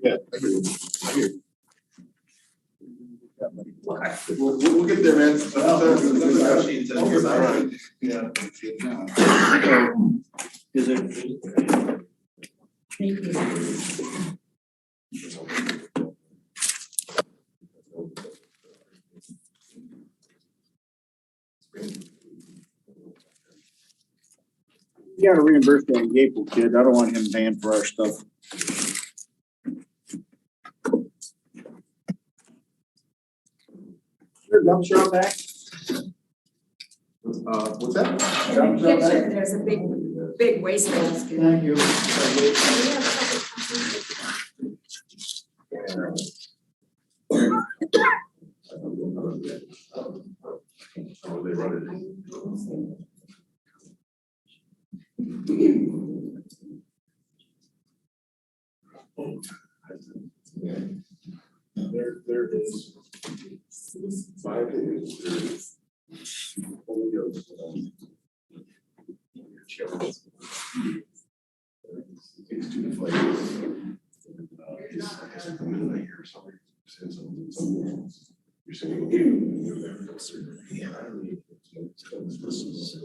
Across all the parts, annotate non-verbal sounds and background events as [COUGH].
Yeah. I hear you. I hear you. We'll, we'll we'll get there, man. That's- that's- that's our sheet. That's all right. Yeah. Is it? You gotta reimburse that Gable kid. I don't want him paying for our stuff. Sure, dump truck back. Uh, what's that? In the kitchen, there's a big, big waste basket. Thank you. Oh, they run it. There, there is five days, there is. Holy Ghost. These two flavors. Uh, it's- it's a middle of here, somebody said something, something else. You're saying. Yeah. This is.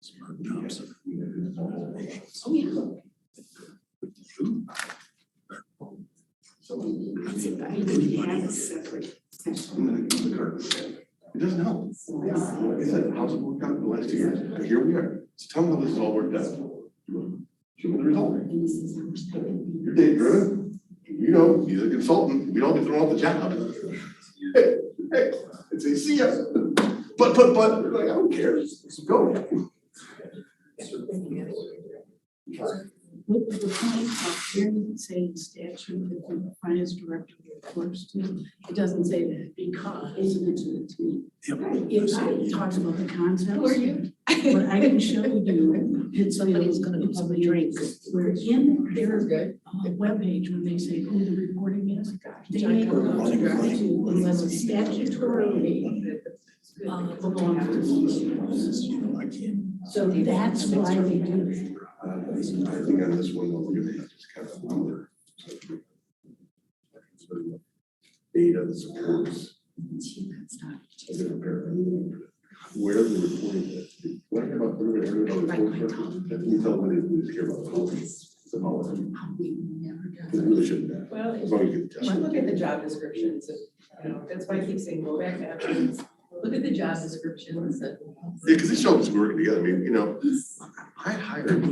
Smart Thompson. Oh, yeah. That's it, but I think we have a separate section. I'm gonna go to the curb. It doesn't help. Yeah, like I said, how's it worked out in the last two years? And here we are. So tell me how this is all worked out. Show me the result. You're data driven. You know, he's a consultant. We don't get thrown off the job. Hey, hey, it's a see ya. But, but, but, we're like, I don't care. Let's go. What the point of hearing say statute that the finance director reports to, it doesn't say that because, isn't it to me? It talks about the concepts. Who are you? What I can show you, [LAUGHS] it's a, Somebody's gonna it's come a and drink. Where in their good. Oh uh, webpage, when they say who the reporting is, they John make a Doe. note to unless it's statutorily uh, belongs to the museum. So that's why they do it. Uh, I think on this one, we're gonna have to kind of wonder. Data that supports. Is it a paragraph? Where the reporting is, what about the reporting? of the report? That we tell them it is here about the policy. It's a policy. It really shouldn't matter. Well, As if long as you get the you job. look at the job descriptions, if, you know, that's why I keep saying go back to evidence. Look at the job descriptions and. Yeah, because it shows us working together. I mean, you know, I hired,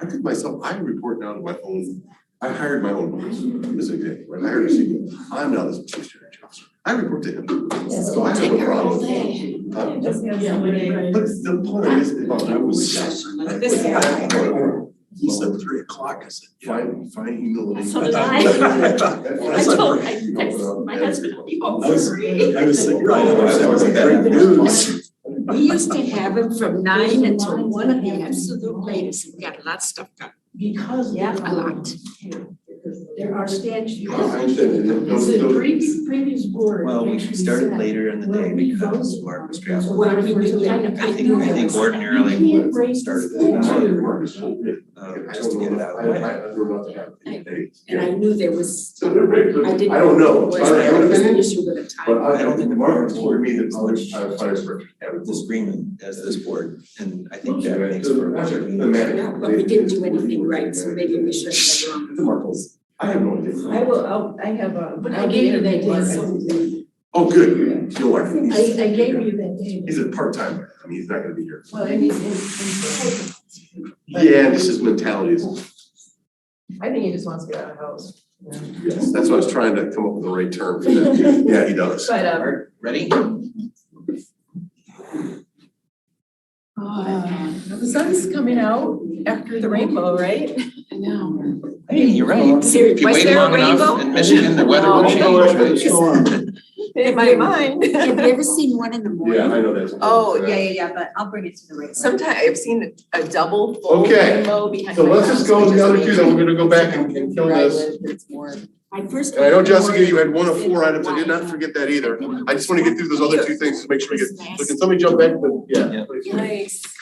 I did myself, I report now to my own, I hired my own boss. This is a good, right? I hired a CEO. I'm now this chief strategy officer. I report to him. So I have a problem. Uh, Just have Yeah, somebody- right. But the point is, if I was. This guy. He said three o'clock. I said, fine, fine, humility. So did I. I told, I texted my husband, I'll be home for three. I was like, right, that was great news. We used to have him from nine until one of the absolute latest. We got a lot of stuff done. Because. Yeah, a lot. There are statutes. I understand that. No, It's a no. previous, previous board. Well, we actually started said later in the day when we because voted work was on it, traveling. what we I did, I think, I think ordinarily, You can't raise the started statute. uh, just to get it out of the I, way. I don't know what to have. Hey, And I knew there was, So they're very good. I didn't. I don't know, Was I don't have there an was an opinion, issue with a but time? I, I don't think the market for me that As always, much I was uh, fire department. This agreement as this board, and I think that makes for. a Actually, better the manager. Yeah, but we didn't do anything right, so maybe we should have done The markets, I have no idea. I will, I'll, I have a. But I gave you that day, so Oh, good, you'll learn. I, I gave you that day. He's a part-time, I mean, he's not gonna be here. Well, I mean, in, in- Yeah, this is mentality is I think he just wants to get out of the house. you know. Yes, that's what I was trying to come up with the right term for that. Yeah, he does. But, um, Alright, ready? Ah, Uh, the sun's coming out after the rainbow, right? I know. Hey, you're right. If Seriously, you was wait there a long enough rainbow? Oh, in Michigan, the weather will No. change. In my my [LAUGHS] mind. Have you ever seen one in the morning? know that's. Oh, yeah, but I'll bring it to the right. [LAUGHS] Sometimes I've seen a double full Okay, rainbow behind So my let's just house, go with the because other we- two, then we're gonna go back and and kill Where I this. live, it's more- My first. And I know Jessica, you had one of four items. I did not forget that either. I just wanna get through those other two things to make sure we get, so can somebody jump back to, yeah. Yeah. please. Nice.